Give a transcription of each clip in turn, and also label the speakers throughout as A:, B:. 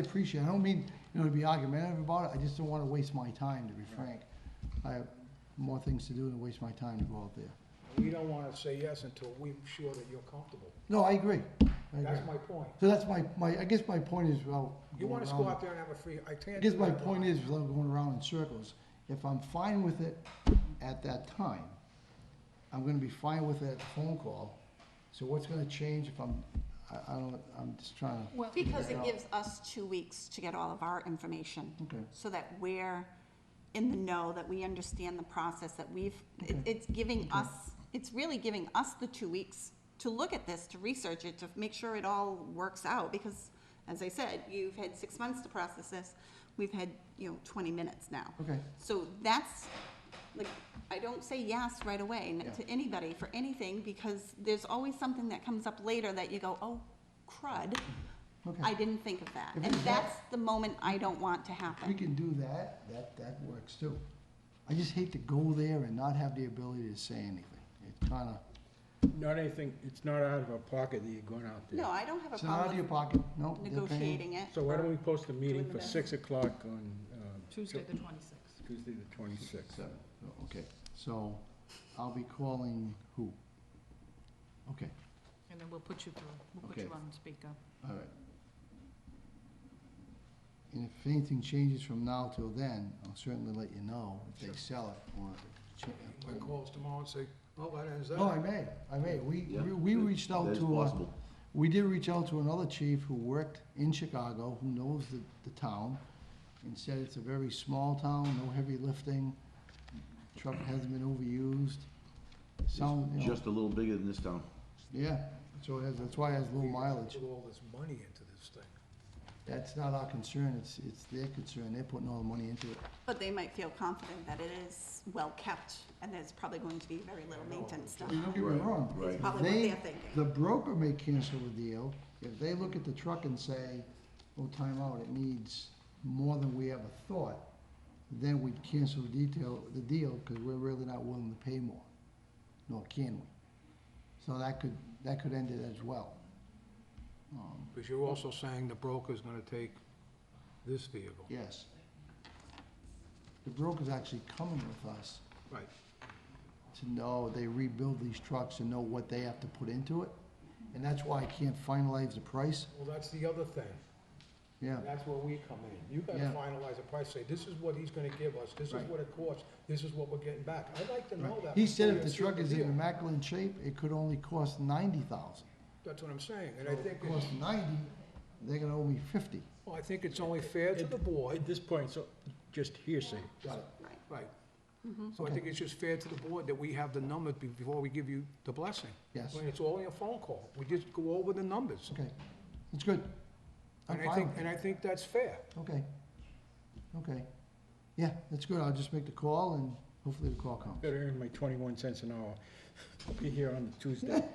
A: I appreciate, it. I don't mean, you know, to be argumentative about it, I just don't wanna waste my time, to be frank. I have more things to do than waste my time to go out there.
B: We don't want to say yes until we're sure that you're comfortable.
A: No, I agree, I
B: That's
A: agree.
B: my point.
A: So that's my, my, I guess my point is, well.
B: You want us to
A: going
B: go
A: around-
B: out there and have a free, I can't.
A: I guess my point is, without going around in circles, if I'm fine with it at that time, I'm gonna be fine with that phone call. So what's gonna change if I'm, I, I don't, I'm just trying to,
C: Because
A: Yeah.
C: it gives us two weeks to get all of our information,
A: okay.
C: so that we're in the know, that we understand the process, that we've, it-
A: Okay.
C: it's giving us, it's really giving us the two weeks to look at this, to research it, to make sure it all works out, because, as I said, you've had six months to process this, we've had, you know, twenty minutes now.
A: Okay,
C: So that's, like, I don't say yes right away n-
A: Yeah.
C: to anybody for anything, because there's always something that comes up later that you go, oh, crud, I
A: okay.
C: didn't think of that.
A: If it's
C: And
A: not-
C: that's the moment I don't want to
A: If we
C: happen.
A: can do that, that, that works too. I just hate to go there and not have the ability to say anything. It kinda,
D: Not anything, it's not out of our pocket that you're going out there.
C: No, I don't have a
A: it's not out of your
C: problem
A: pocket, no.
C: with negotiating it.
D: So why don't we post a meeting
C: Doing the
D: for
C: best.
D: six o'clock on, um,
E: Tuesday, the twenty-sixth.
D: Tuesday the twenty-sixth?
A: Seven, oh, okay. So I'll be calling who? Okay,
E: And then we'll put you through, we'll put
A: Okay.
E: you on speaker.
A: all right. And if anything changes from now till then, I'll certainly let you know if they
B: Sure.
A: sell it or. if it
B: My
A: cha-
B: calls tomorrow and say, "Oh, well, that ends
A: No, I
B: that.
A: may, I may. We,
F: Yeah,
A: we- we
F: that-
A: reached out
F: That is
A: to, uh,
F: possible.
A: We did reach out to another chief who worked in Chicago, who knows the, the town, and said it's a very small town, no heavy lifting, truck hasn't been overused. Sound,
F: It's
A: you know,
F: just a little bigger than this town.
A: yeah, so it has, that's why it has low
B: We
A: mileage.
B: Put all this money into this thing.
A: That's not our concern, it's, it's their concern, they're putting all the money into it.
C: But they might feel confident that it is well-kept, and there's probably going to be very little maintenance done.
A: Don't get me
F: Right,
A: wrong.
F: right.
A: If
C: Probably what
A: they-
C: they're thinking.
A: The broker may cancel a deal, if they look at the truck and say, oh, time out, it needs more than we ever thought, then we'd cancel the detail, the deal, because we're really not willing to pay more, nor can we. So that could, that could end it as well. Um,
B: Because you're also saying the broker's going to take this vehicle.
A: Yes. The broker's actually coming with us
B: Right.
A: to know they rebuild these trucks and know what they have to put into it. And that's why I can't finalize the price.
B: Well, that's the other thing.
A: Yeah,
B: That's where we come in. You got to
A: Yeah.
B: finalize a price, say, this is what he's going to give us, this is
A: Right.
B: what it costs, this is what we're getting back. I'd like to know that.
A: he said if
B: before
A: the
B: you seal
A: truck is in
B: deal.
A: immaculate shape, it could only cost ninety thousand.
B: That's what I'm saying, and I think,
A: If it costs ninety, they're gonna owe me fifty.
B: well, I think it's only fair to the board,
D: At this point, so, just hearsay.
B: right? So I think it's just fair to the board that we have the numbers be- before we give you the blessing.
A: Yes,
B: When it's only a phone call, we just go over the numbers.
A: okay, that's good. I'm
B: And I
A: fine
B: think,
A: with
B: and I think that's fair.
A: it. Okay, okay. Yeah, that's good, I'll just make the call and hopefully the call comes.
D: Better earn my twenty-one cents an hour. I'll be here on Tuesday.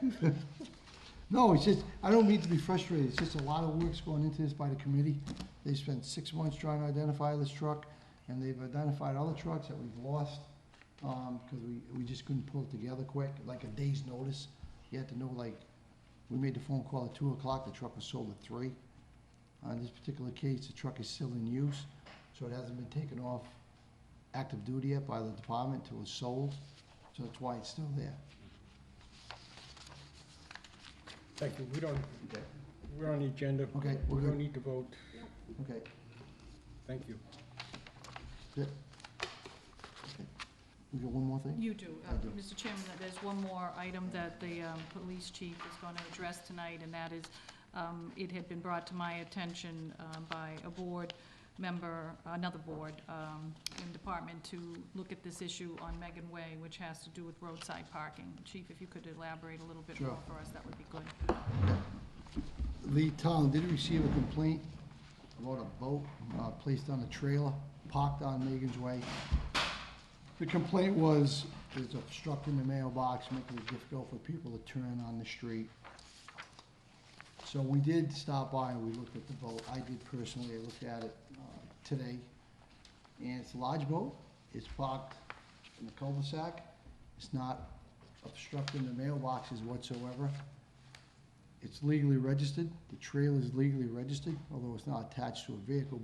A: No, it's just, I don't mean to be frustrated, it's just a lot of work's going into this by the committee. They spent six months trying to identify this truck, and they've identified other trucks that we've lost, um, because we, we just couldn't pull it together quick, like a day's notice. You had to know, like, we made the phone call at two o'clock, the truck was sold at three. On this particular case, the truck is still in use, so it hasn't been taken off active duty yet by the department till it's sold, so that's why it's still there.
D: Thank you, we don't, we're on the agenda.
A: Okay, we're
D: We don't
A: good.
D: need to vote.
A: Okay.
D: Thank you.
A: Yeah. We got one more thing?
E: You do. Uh,
A: I do.
E: Mr. Chairman, there's one more item that the um, police chief is going to address tonight, and that is, um, it had been brought to my attention um, by a board member, another board um, in department, to look at this issue on Megan Way, which has to do with roadside parking. Chief, if you could elaborate a little bit
A: Sure.
E: more for us, that would be good.
A: The town did receive a complaint about a boat uh, placed on a trailer parked on Megan's Way. The complaint was, it's obstructing the mailbox, making it difficult for people to turn on the street. So we did stop by and we looked at the boat. I did personally, I looked at it uh, today. And it's a large boat, it's parked in the cul-de-sac. It's not obstructing the mailboxes whatsoever. It's legally registered, the trailer is legally registered, although it's not attached to a vehicle by